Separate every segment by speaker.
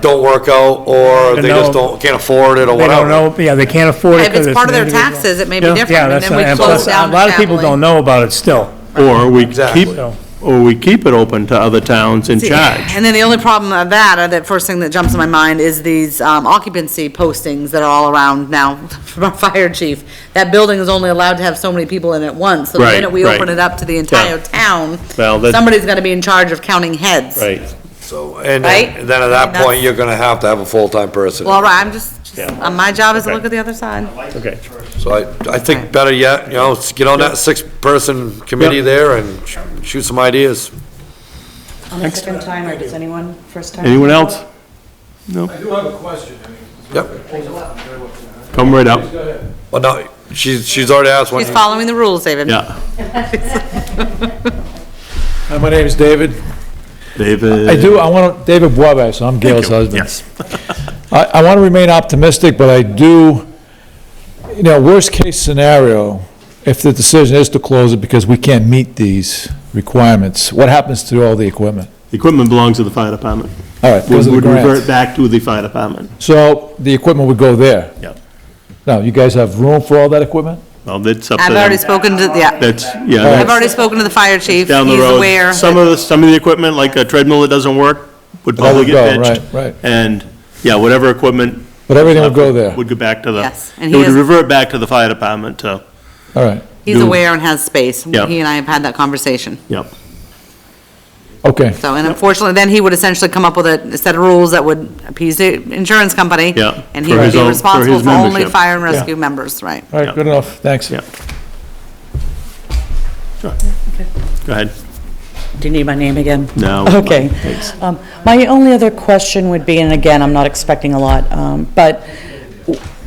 Speaker 1: don't work out, or they just don't, can't afford it, or
Speaker 2: They don't
Speaker 1: whatever.
Speaker 2: know, yeah, they can't afford it.
Speaker 3: If it's
Speaker 2: 'cause
Speaker 3: part of their
Speaker 2: individual.
Speaker 3: taxes, it may be
Speaker 2: Yeah,
Speaker 3: different,
Speaker 2: yeah,
Speaker 3: and
Speaker 2: that's
Speaker 3: then we
Speaker 2: not- and
Speaker 3: close
Speaker 2: plus,
Speaker 3: down
Speaker 2: A lot of people
Speaker 3: family.
Speaker 2: don't know about it still,
Speaker 4: Or we
Speaker 1: Exactly.
Speaker 4: keep,
Speaker 2: so.
Speaker 4: or we keep it open to other towns in charge.
Speaker 3: And then the only problem of that, or that first thing that jumps in my mind, is these um, occupancy postings that are all around now from our fire chief. That building is only allowed to have so many people in at once, so the
Speaker 4: Right,
Speaker 3: minute we
Speaker 4: right.
Speaker 3: open it up to the entire
Speaker 4: Yeah.
Speaker 3: town,
Speaker 4: Well, that-
Speaker 3: somebody's gonna be in charge of counting heads.
Speaker 4: Right.
Speaker 1: So, and
Speaker 3: Right?
Speaker 1: then, then at
Speaker 3: And
Speaker 1: that
Speaker 3: that's-
Speaker 1: point, you're gonna have to have a full-time person.
Speaker 3: Well, all right, I'm just, just-
Speaker 4: Yeah.
Speaker 3: uh, my job is to
Speaker 4: Okay.
Speaker 3: look at the other side.
Speaker 4: Okay.
Speaker 1: So I, I think better yet, you know, s- get on that six-person committee
Speaker 4: Yep.
Speaker 1: there and sh- shoot some ideas.
Speaker 5: On the second time, or does anyone, first time?
Speaker 4: Anyone else?
Speaker 6: I do have a question, I mean.
Speaker 1: Yep.
Speaker 4: Come right up.
Speaker 6: Go ahead.
Speaker 1: Well, no, she's, she's already asked one.
Speaker 3: He's following the rules, David.
Speaker 4: Yeah.
Speaker 6: Hi, my name is David.
Speaker 4: David.
Speaker 6: I do, I want to, David Wabash, I'm Gail's husband.
Speaker 4: Yes.
Speaker 6: I, I want to remain optimistic, but I do, you know, worst-case scenario, if the decision is to close it because we can't meet these requirements, what happens to all the equipment?
Speaker 4: Equipment belongs to the fire department.
Speaker 6: All right,
Speaker 4: Would
Speaker 6: goes to the
Speaker 4: would revert
Speaker 6: grant.
Speaker 4: back to the fire department.
Speaker 6: So the equipment would go there.
Speaker 4: Yeah.
Speaker 6: Now, you guys have room for all that equipment?
Speaker 4: Well, that's up to
Speaker 3: I've already
Speaker 4: them.
Speaker 3: spoken to, yeah,
Speaker 4: That's, yeah,
Speaker 3: I've
Speaker 4: that's
Speaker 3: already spoken to the fire chief.
Speaker 4: down the
Speaker 3: He's
Speaker 4: road.
Speaker 3: aware
Speaker 4: Some
Speaker 3: that-
Speaker 4: of the, some of the equipment, like a treadmill that doesn't work, would
Speaker 6: That
Speaker 4: probably
Speaker 6: would
Speaker 4: get
Speaker 6: go,
Speaker 4: ditched.
Speaker 6: right, right.
Speaker 4: And, yeah, whatever equipment.
Speaker 6: But everything would go there.
Speaker 4: Would go back to the.
Speaker 3: Yes, and
Speaker 4: It
Speaker 3: he
Speaker 4: would
Speaker 3: is-
Speaker 4: revert back to the fire department, uh, so,
Speaker 6: All right,
Speaker 3: He's
Speaker 4: do-
Speaker 3: aware and has space. He
Speaker 4: Yeah.
Speaker 3: and I have had that conversation.
Speaker 4: yep.
Speaker 6: okay.
Speaker 3: So, and unfortunately, then he would essentially come up with a set of rules that would appease the insurance company.
Speaker 4: Yeah,
Speaker 3: And he
Speaker 4: for
Speaker 3: would
Speaker 4: his
Speaker 3: be
Speaker 4: own- for
Speaker 3: responsible
Speaker 4: his
Speaker 3: for only
Speaker 4: membership.
Speaker 3: fire and rescue members, right?
Speaker 6: All right, good enough, thanks.
Speaker 4: Yeah. Sure. Go ahead.
Speaker 5: Do you need my name again?
Speaker 4: No.
Speaker 5: Okay.
Speaker 4: Thanks.
Speaker 5: Um, My only other question would be, and again, I'm not expecting a lot, um, but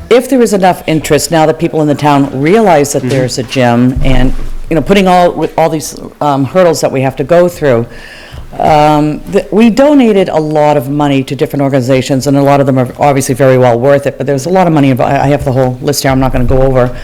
Speaker 5: if there is enough interest, now that people in the town realize that there's a gym, and, you know, putting all, with all these um, hurdles that we have to go through, um, th- we donated a lot of money to different organizations, and a lot of them are obviously very well worth it, but there's a lot of money, invo- I I have the whole list here, I'm not going to go over.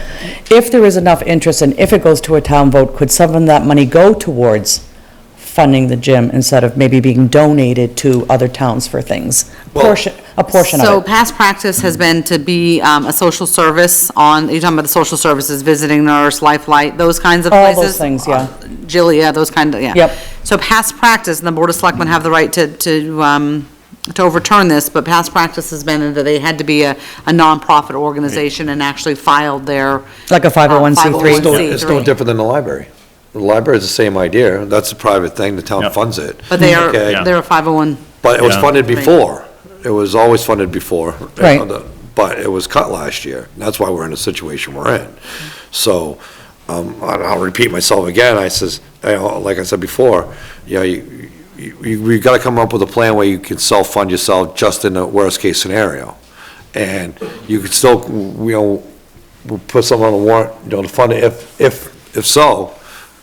Speaker 5: If there is enough interest, and if it goes to a town vote, could some of that money go towards funding the gym instead of maybe being donated to other towns for things? Portion, a portion
Speaker 3: So
Speaker 5: of it.
Speaker 3: past practice has been to be um, a social service on, you're talking about the social services, visiting nurse, lifelight, those kinds of
Speaker 5: All
Speaker 3: places.
Speaker 5: those things, yeah.
Speaker 3: Jill, yeah, those kind of, yeah.
Speaker 5: Yep.
Speaker 3: So past practice, and the Board of Selectmen have the right to, to, um, to overturn this, but past practice has been that they had to be a, a nonprofit organization and actually filed their.
Speaker 5: Like a 501c3.
Speaker 3: uh,
Speaker 1: It's no- It's no
Speaker 3: 501c3.
Speaker 1: different than the library. The library is the same idea, that's a private thing, the town
Speaker 4: Yep.
Speaker 1: funds it.
Speaker 3: But they are,
Speaker 1: Hmm. Okay.
Speaker 3: they're a 501.
Speaker 1: But it was
Speaker 4: Yeah.
Speaker 1: funded before. It was always funded before. uh,
Speaker 5: Right.
Speaker 1: But it was cut last year. That's why we're in the situation we're in. So, um, and I'll repeat myself again. I says, you know, like I said before, you know, you, you, you we've gotta come up with a plan where you can self-fund yourself just in the worst-case scenario. And you could still, you know, we'll put some on the warrant, you know, to fund it if, if, if so.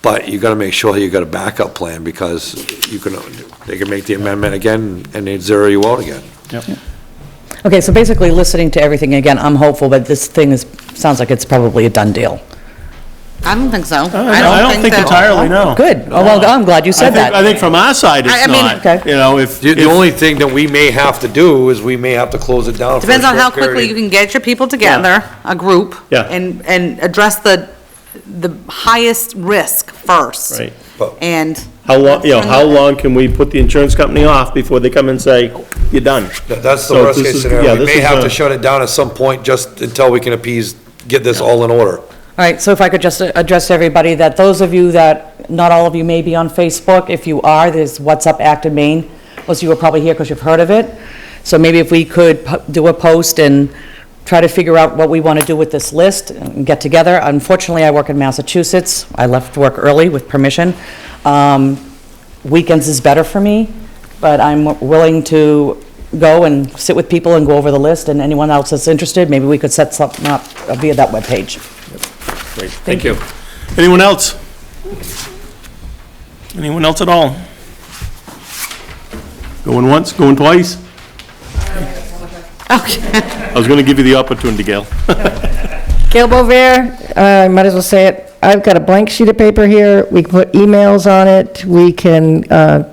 Speaker 1: But you gotta make sure you got a backup plan because you can, they can make the amendment again and they'd zero you out again.
Speaker 5: Okay, so basically, listening to everything, again, I'm hopeful, but this thing is, sounds like it's probably a done deal.
Speaker 3: I don't think so.
Speaker 4: Uh, I don't think
Speaker 3: that-
Speaker 4: entirely, no.
Speaker 5: Good, Oh, well, I'm glad you
Speaker 4: Uh, I
Speaker 5: said
Speaker 4: think, I
Speaker 5: that.
Speaker 4: think from our side,
Speaker 3: I- I
Speaker 4: it's
Speaker 3: mean-
Speaker 5: Okay.
Speaker 4: not, you know, if.
Speaker 1: The, the
Speaker 4: if-
Speaker 1: only thing that we may have to do is we may have to close it down. for a
Speaker 3: Depends on how
Speaker 1: short period.
Speaker 3: quickly you can get your people together, a group.
Speaker 4: Yeah.
Speaker 3: And, and address the, the highest risk first.
Speaker 4: Right.
Speaker 1: But-
Speaker 3: And.
Speaker 4: How long, you know, how long can we put the insurance company off before they come and say, you're done?
Speaker 1: That- That's the
Speaker 4: So
Speaker 1: worst
Speaker 4: this
Speaker 1: case
Speaker 4: is- yeah,
Speaker 1: scenario. We
Speaker 4: this
Speaker 1: may
Speaker 4: is
Speaker 1: have
Speaker 4: a-
Speaker 1: to shut it down at some point just until we can appease, get this all in order.
Speaker 5: All right, so if I could just uh, address everybody, that those of you that, not all of you may be on Facebook, if you are, there's What's Up Acton Maine, most of you are probably here because you've heard of it, so maybe if we could po- do a post and try to figure out what we want to do with this list and get together. Unfortunately, I work in Massachusetts, I left work early with permission. Um, Weekends is better for me, but I'm willing to go and sit with people and go over the list, and anyone else that's interested, maybe we could set something up via that webpage.
Speaker 4: Great, Thank you. Anyone else? Anyone else at all? Going once, going twice? I was gonna give you the opportunity, Gail.
Speaker 7: Gail Bover, I might as well say it, I've got a blank sheet of paper here, we can put emails on it, we can uh,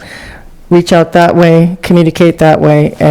Speaker 7: reach out that way, communicate that way,